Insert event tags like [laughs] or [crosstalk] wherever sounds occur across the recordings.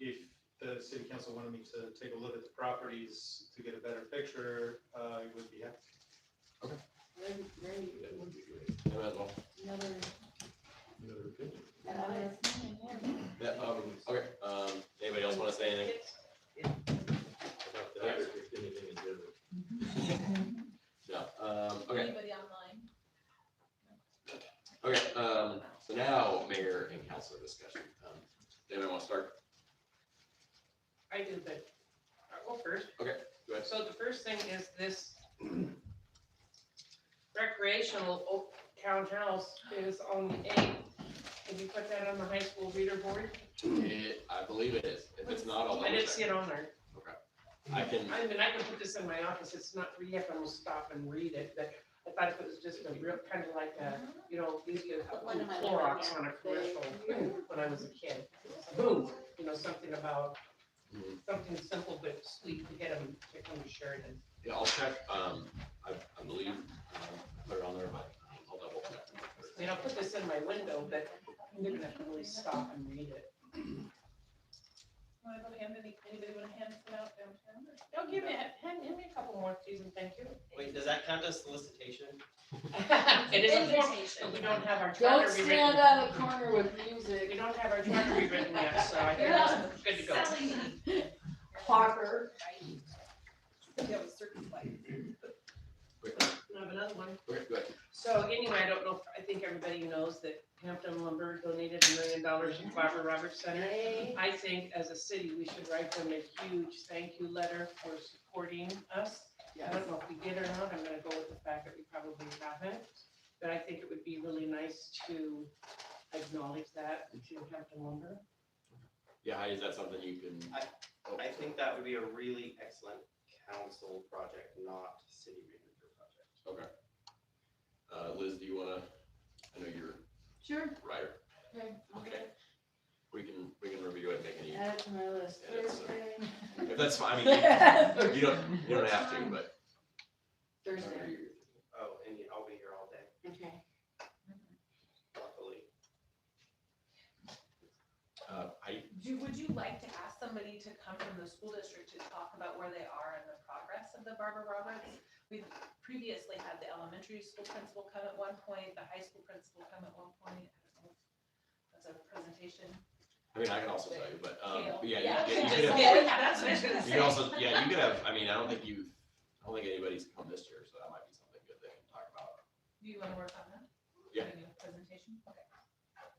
if the city council wanted me to take a look at the properties to get a better picture, uh, I would be happy. Very, very, That would be great. Might as well. another, Another opinion. another thing, yeah. Yeah, um, okay, um, anybody else want to say anything? About that, or just anything in general. No, um, okay, Anybody online? okay, um, so now mayor and council discussion. Um, Anybody want to start? I did that. I'll go first. Okay, go ahead. So the first thing is this recreational Oak Town House is on the eighth. Can you put that on the high school reader board? It, I believe it is. If it's not, I'll I double didn't see check. it on there. I can, I mean, I can put this in my office. It's not, you have to stop and read it, but I thought it was just a real, kind of like a, you know, you get a Put one in my Clorox on a living commercial when I was a kid. Boom, you know, something about, Mhm. something simple but sweet to get them to come to Sheridan. yeah, I'll check, um, I, I believe, um, I put it on there, but um, I'll double check. I mean, I'll put this in my window, but they're gonna have to really stop and read it. Want to go hand any, anybody want to hand some out downtown? or- No, give me, hand, hand me a couple more, please, and thank you. Wait, [laughs] does that count as solicitation? It is important, that we don't have our charter Don't rewritten. stand on the corner with We music, don't have our charter rewritten yet, so I think that's good to go. Selling. Parker. We have a certain life. I have another one. Okay, go ahead. So anyway, I don't know, if- I think everybody knows that Hampton Lumber donated a million dollars to Barbara Roberts Center. I think as a city, we should write them a huge thank you letter for supporting us. I Yes. don't know if we did or not, I'm gonna go with the fact that we probably haven't, but I think it would be really nice to acknowledge that to Hampton Lumber. Yeah, Heidi, is that something you can? I- I think that would be a really excellent council project, not city manager project. Okay. Uh, Liz, do you wanna, I know you're Sure. a writer. Okay, I'll Okay. We can, we can review it, and make any, Add it to my list. Yeah, that's- Thursday. if that's [laughs] fine, I mean, you don't, you don't have to, but. Thursday, Oh, and you- I'll be here all day, okay. luckily. Uh, I, Do, would you like to ask somebody to come from the school district to talk about where they are and the progress of the Barbara Roberts? We've previously had the elementary school principal come at one point, the high school principal come at one point. I don't know if That's a presentation. I mean, I can also tell you, but, um, but yeah, you can, you Yeah, [laughs] can have- just- yeah, that's what I was gonna you [laughs] say. can also, yeah, you could have, I mean, I don't think you've, I don't think anybody's come this year, so that might be something good they can talk about. Do you wanna work on that? Yeah. Doing a Presentation, okay.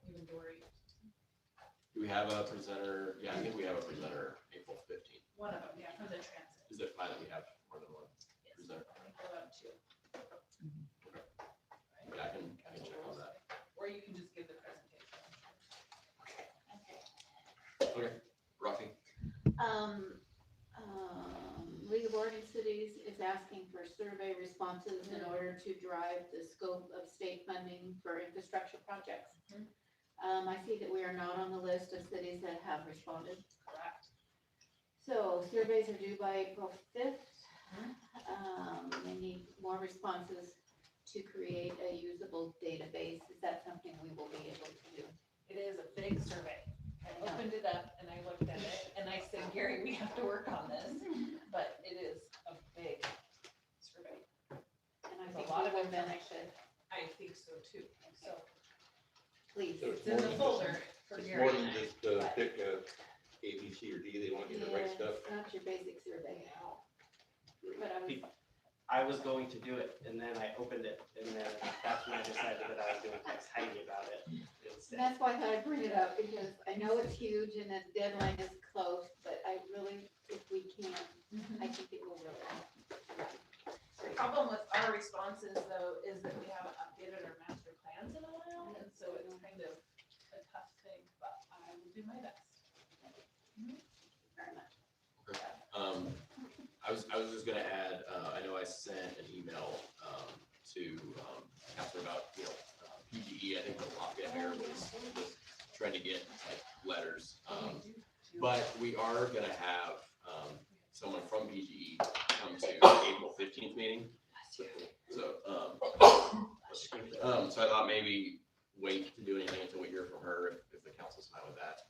You and Dory, Do we have a presenter? Yeah, I think we have a presenter April fifteenth. one of them, yeah, for the transit. Is it fine that we have more than one Yes. presenter? I think we'll have two. Mm-hmm. But I can, I can check on that. Or you can just give the presentation. Okay, Rocky? Um, um, League of Oregon Cities is asking for survey responses in order to drive the scope of state funding for infrastructure projects. Mhm. Um, I see that we are not on the list of cities that have responded. Correct. So surveys are due by April fifth. Mhm. Um, we need more responses to create a usable database. Is that something we will be able to do? It is a big survey. I Yeah. opened it up and I looked at it and I said, Gary, we have to work on this, but it is a big survey. And I There's a think lot we of will manage information. it, I think so too, so please. So it's in the folder for It's Gary more and than I. just uh, pick uh, A, B, C, or D, they want you to write Yeah, stuff. It's not your basic survey. But I was, I was going to do it, and then I opened it, and then that's when I decided that I was gonna text Heidi about it and instead. that's why I thought I'd bring it up because I know it's huge and the deadline is close, but I really, if we can, Mhm. I think it will really help. The problem with our responses though is that we haven't updated our master plans in a while, and so it's kind of a tough thing, but I will do my best. very much. Um, I was, I was just gonna add, uh, I know I sent an email, um, to, um, Catherine about, you know, uh, PGE, I think the Lafayette Mayor was, was trying to get like letters. Um, but we are gonna have, um, someone from PGE come to April fifteenth meeting. So, um, um, so I thought maybe wait to do anything until we hear from her, if, if the council's fine with that.